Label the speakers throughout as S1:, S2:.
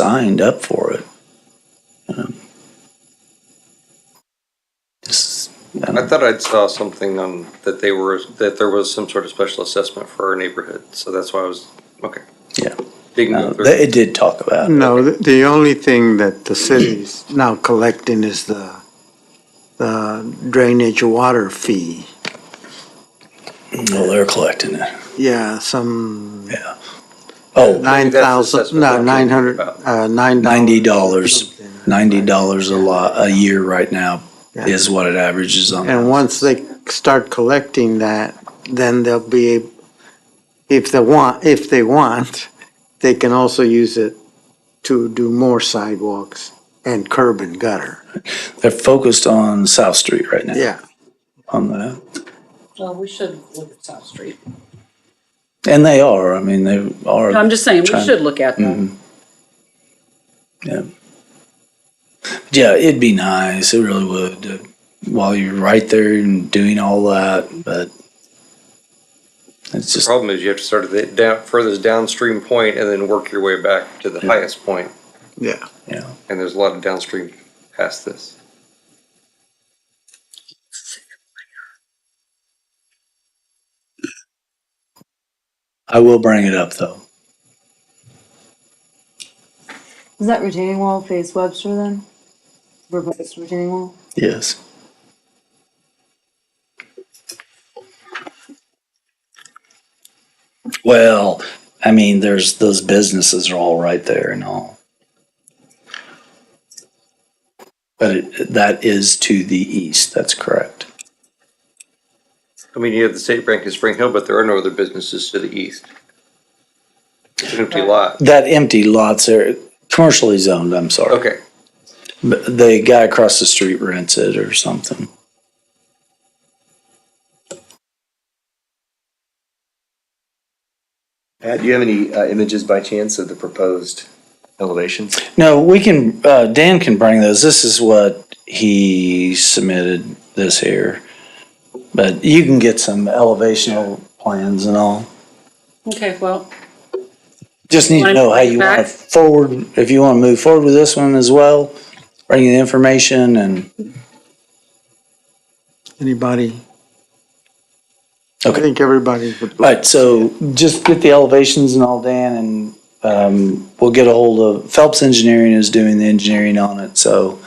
S1: signed up for it. Um, This, I
S2: I
S1: don't-
S2: thought I'd saw something on, that they were, that there was some sort of special assessment for our neighborhood, so that's why I was, okay.
S1: Yeah.
S2: Digging
S1: no,
S2: through.
S1: they- it did talk about it.
S3: No, the- the only thing that the city's now collecting is the, the drainage water fee.
S1: Well, they're collecting it.
S3: Yeah, some
S1: Oh,
S3: nine
S2: that's
S3: thousand,
S2: what
S3: no,
S2: I'm
S3: nine hundred,
S2: talking
S3: uh, nine.
S1: $90. ninety dollars a lot, a year right now
S3: Yeah.
S1: is what it averages on.
S3: And once they start collecting that, then they'll be, ab- if they want, if they want, they can also use it to do more sidewalks and curb and gutter.
S1: They're focused on South Street right now.
S3: Yeah.
S1: On that.
S4: Well, we should look at South Street.
S1: And they are, I mean, they are.
S4: I'm just saying, we
S1: Trying-
S4: should look at them.
S1: Yeah, it'd be nice. It really would. uh, While you're right there and doing all that, but it's
S2: The
S1: just,
S2: problem is you have to start at the down, furthest downstream point and then work your way back to the highest point,
S3: Yeah.
S1: yeah.
S2: and there's a lot of downstream past this.
S1: I will bring it up though.
S5: Is that retaining wall face Webster then? Reverse retaining wall?
S1: Yes. Well, I mean, there's those businesses are all right there and all. But it, that is to the east. That's correct.
S2: I mean, you have the state bank in Spring Hill, but there are no other businesses to the east. It's an empty lot.
S1: That empty lots are commercially zoned. I'm sorry.
S2: Okay,
S1: But The guy across the street rents it or something.
S6: Pat, do you have any uh, images by chance of the proposed elevations?
S1: No, we can, uh, Dan can bring those. This is what he submitted this here. But you can get some elevational plans and all.
S4: Okay, well,
S1: Just need to
S4: Wanna
S1: know how
S4: bring it
S1: you want to
S4: back?
S1: forward, if you want to move forward with this one as well, bring the information and,
S3: Anybody? I
S1: Okay.
S3: think everybody would.
S1: all right, so just get the elevations and all, Dan, and, um, we'll get a hold of, Phelps Engineering is doing the engineering on it, so,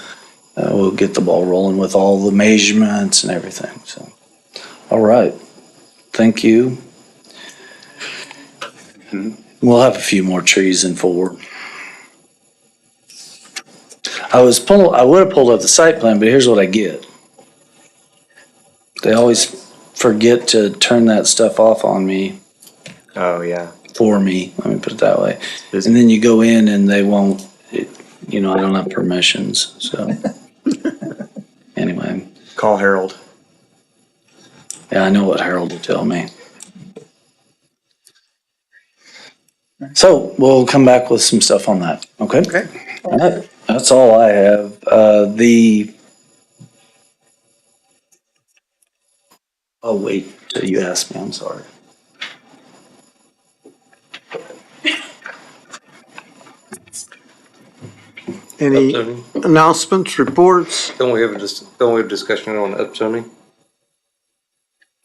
S1: uh, we'll get the ball rolling with all the measurements and everything, so. All right, thank you. We'll have a few more trees in forward. I was pull, I would have pulled up the site plan, but here's what I get. They always forget to turn that stuff off on me,
S6: Oh, yeah.
S1: for me, let me put it that way.
S6: Busy.
S1: And then you go in and they won't, it, you know, I don't have permissions, so. Anyway,
S6: Call Harold.
S1: yeah, I know what Harold will tell me. So we'll come back with some stuff on that, okay?
S6: Okay.
S1: All right, That's all I have. Uh, the. Oh, wait, till you asked me, I'm sorry. Mm.
S3: Any
S2: upzoning.
S3: announcements, reports?
S2: Don't we have a, dis- don't we have a discussion on upzoning?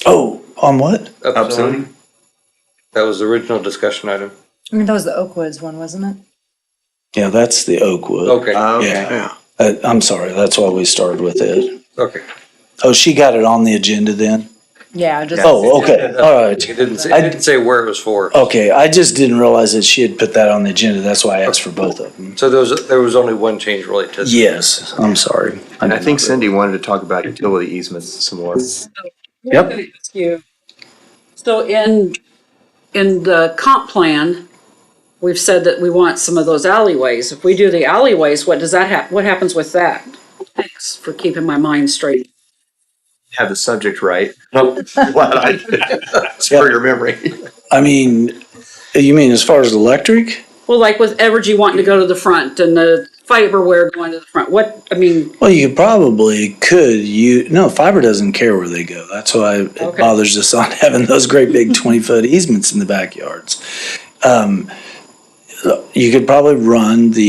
S1: Oh, on what?
S6: Upzoning?
S2: That was the original discussion item.
S5: I mean, that was the Oakwoods one, wasn't it?
S1: Yeah, that's the Oakwood.
S2: Okay,
S6: Okay.
S1: Yeah, Uh, I'm sorry, that's why we started with it.
S2: okay.
S1: Oh, she got it on the agenda then?
S5: Yeah, just.
S1: Oh, okay, all right. Oh.
S2: It didn't say, it didn't say where it was for.
S1: Okay, I just didn't realize that she had put that on the agenda, that's why I asked for both of them.
S2: So there was, there was only one change related to.
S1: Yes, I'm sorry.
S6: And I
S1: did
S6: think
S1: not-
S6: Cindy wanted to talk about utility easements some more.
S1: Yep.
S4: Thank you. So in, in the comp plan, we've said that we want some of those alleyways. If we do the alleyways, what does that hap, what happens with that? Thanks for keeping my mind straight.
S6: Have the subject right. Glad I did. For your memory.
S1: I mean, you mean as far as electric?
S4: Well, like with Evergy wanting to go to the front and the fiberware going to the front, what, I mean,
S1: Well, you probably could, you, no, fiber doesn't care where they go. That's why it
S4: Okay.
S1: bothers us on having those great big twenty-foot easements in the backyards. Um, You could probably run the